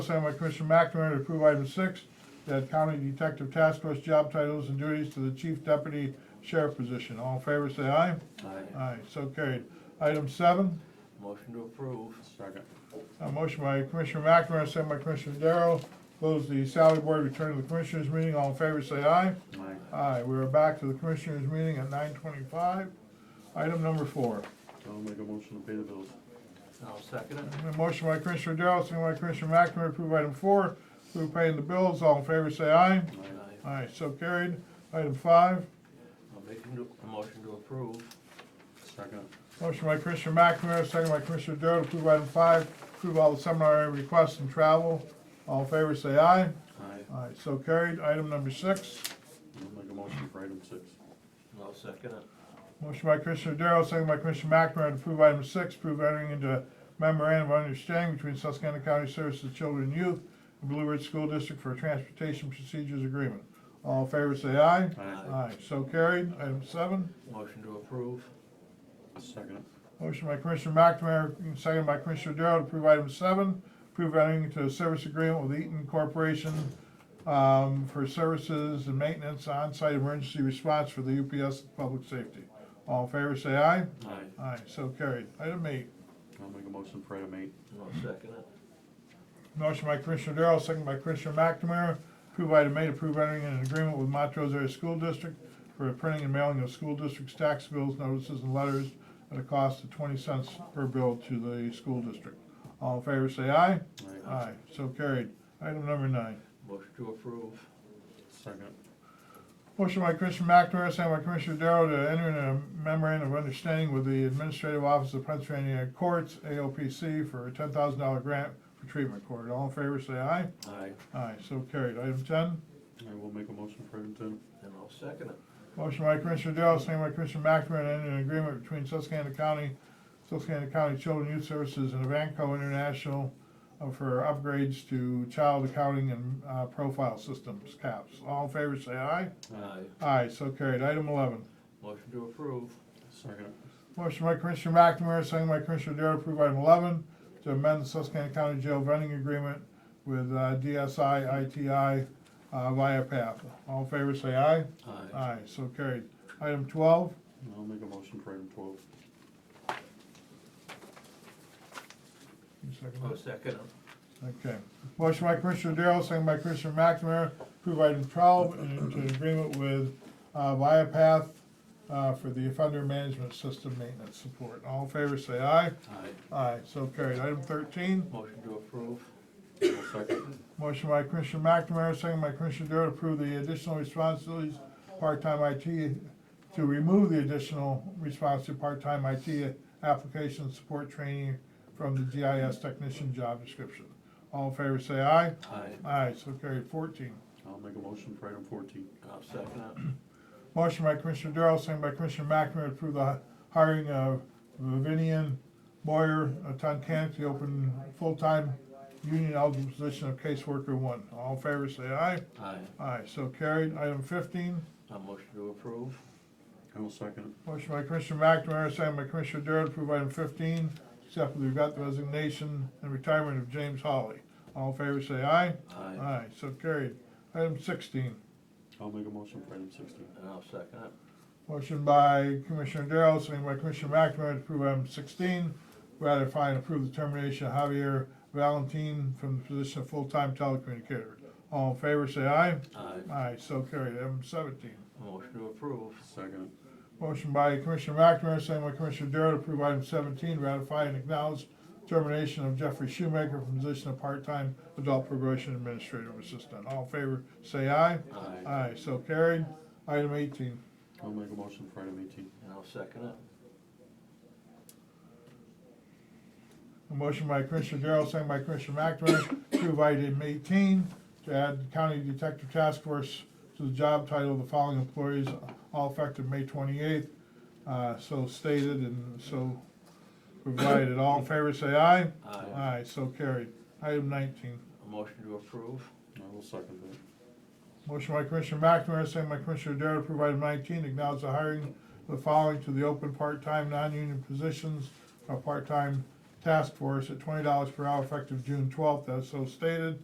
Signed by Commissioner McNamara to approve item six, that county detective task force job titles and duties to the chief deputy sheriff position. All in favor, say aye. Aye. Aye, so carried. Item seven, Motion to approve. Second. a motion by Commissioner McNamara, signed by Commissioner Darrow, close the salary board, return to the commissioners meeting. All in favor, say aye. Aye. Aye, we are back to the commissioners meeting at nine twenty-five. Item number four. I'll make a motion to pay the bills. I'll second it. A motion by Commissioner Darrow, signed by Commissioner McNamara, to approve item four, approve paying the bills. All in favor, say aye. Aye. Aye, so carried. Item five, I'll make a do- a motion to approve. Second. motion by Commissioner McNamara, second by Commissioner Darrow to approve item five, approve all the seminar requests and travel. All in favor, say aye. Aye. Aye, so carried. Item number six, I'll make a motion for item six. I'll second it. motion by Commissioner Darrow, second by Commissioner McNamara to approve item six, approve entering into memorandum of understanding between Susquehanna County Services of Children and Youth and Blue Ridge School District for a Transportation Procedures Agreement. All in favor, say aye. Aye. Aye, so carried. Item seven. Motion to approve. Second. Motion by Commissioner McNamara, second by Commissioner Darrow to approve item seven, approve entering into a service agreement with Eaton Corporation um, for services and maintenance on-site emergency response for the UPS Public Safety. All in favor, say aye. Aye. Aye, so carried. Item eight. I'll make a motion for item eight. I'll second it. Motion by Commissioner Darrow, second by Commissioner McNamara, approve item eight, approve entering an agreement with Montrose Area School District for the printing and mailing of school district's tax bills, notices, and letters at a cost of twenty cents per bill to the school district. All in favor, say aye. Aye. Aye, so carried. Item number nine. Motion to approve. Second. Motion by Commissioner McNamara, second by Commissioner Darrow to enter in a memorandum of understanding with the Administrative Office of Pennsylvania Courts, AOPC, for a ten thousand dollar grant for treatment court. All in favor, say aye. Aye. Aye, so carried. Item ten. I will make a motion for item ten. And I'll second it. Motion by Commissioner Darrow, second by Commissioner McNamara, to enter an agreement between Susquehanna County, Susquehanna County Children and Youth Services and Avanco International uh, for upgrades to child accounting and uh, profile systems, CAPS. All in favor, say aye. Aye. Aye, so carried. Item eleven. Motion to approve. Second. Motion by Commissioner McNamara, second by Commissioner Darrow, approve item eleven, to amend the Susquehanna County Jail vending agreement with uh, DSI ITI uh, via PATH. All in favor, say aye. Aye. Aye, so carried. Item twelve. I'll make a motion for item twelve. You second I'll it? second it. Okay. Motion by Commissioner Darrow, second by Commissioner McNamara, approve item twelve, and into an agreement with, uh, Viapath, uh, for the offender management system maintenance support. All in favor, say aye. Aye. Aye, so carried. Item thirteen, Motion to approve. I'll second. motion by Commissioner McNamara, second by Commissioner Darrow, to approve the additional responsibilities, part-time IT, to remove the additional response to part-time IT application support training from the GIS technician job description. All in favor, say aye. Aye. Aye, so carried fourteen. I'll make a motion for item fourteen. I'll second it. Motion by Commissioner Darrow, second by Commissioner McNamara, to approve the hiring of Vivian Boyer of Tunkhannock to open full-time union eligible position of caseworker one. All in favor, say aye. Aye. Aye, so carried. Item fifteen, A motion to approve. I'll second. motion by Commissioner McNamara, second by Commissioner Darrow, to approve item fifteen, except we've got the resignation and retirement of James Hawley. All in favor, say aye. Aye. Aye, so carried. Item sixteen, I'll make a motion for item sixteen. And I'll second it. Motion by Commissioner Darrow, second by Commissioner McNamara to approve item sixteen, ratify and approve the termination of Javier Valentin from the position of full-time telecommunicator. All in favor, say aye. Aye. Aye, so carried. Item seventeen. A motion to approve. Second. Motion by Commissioner McNamara, second by Commissioner Darrow to approve item seventeen, ratify and acknowledge termination of Jeffrey Shoemaker from the position of part-time adult probation administrative assistant. All in favor, say aye. Aye. Aye, so carried. Item eighteen. I'll make a motion for item eighteen. And I'll second it. A motion by Commissioner Darrow, second by Commissioner McNamara, approve item eighteen, to add County Detective Task Force to the job title of the following employees, all effective May twenty-eighth, uh, so stated and so provided. All in favor, say aye. Aye. Aye, so carried. Item nineteen. A motion to approve. I will second that. Motion by Commissioner McNamara, second by Commissioner Darrow, to approve item nineteen, acknowledge the hiring of the following to the open part-time, non-union positions of part-time Task Force at twenty dollars per hour effective June twelfth, as so stated.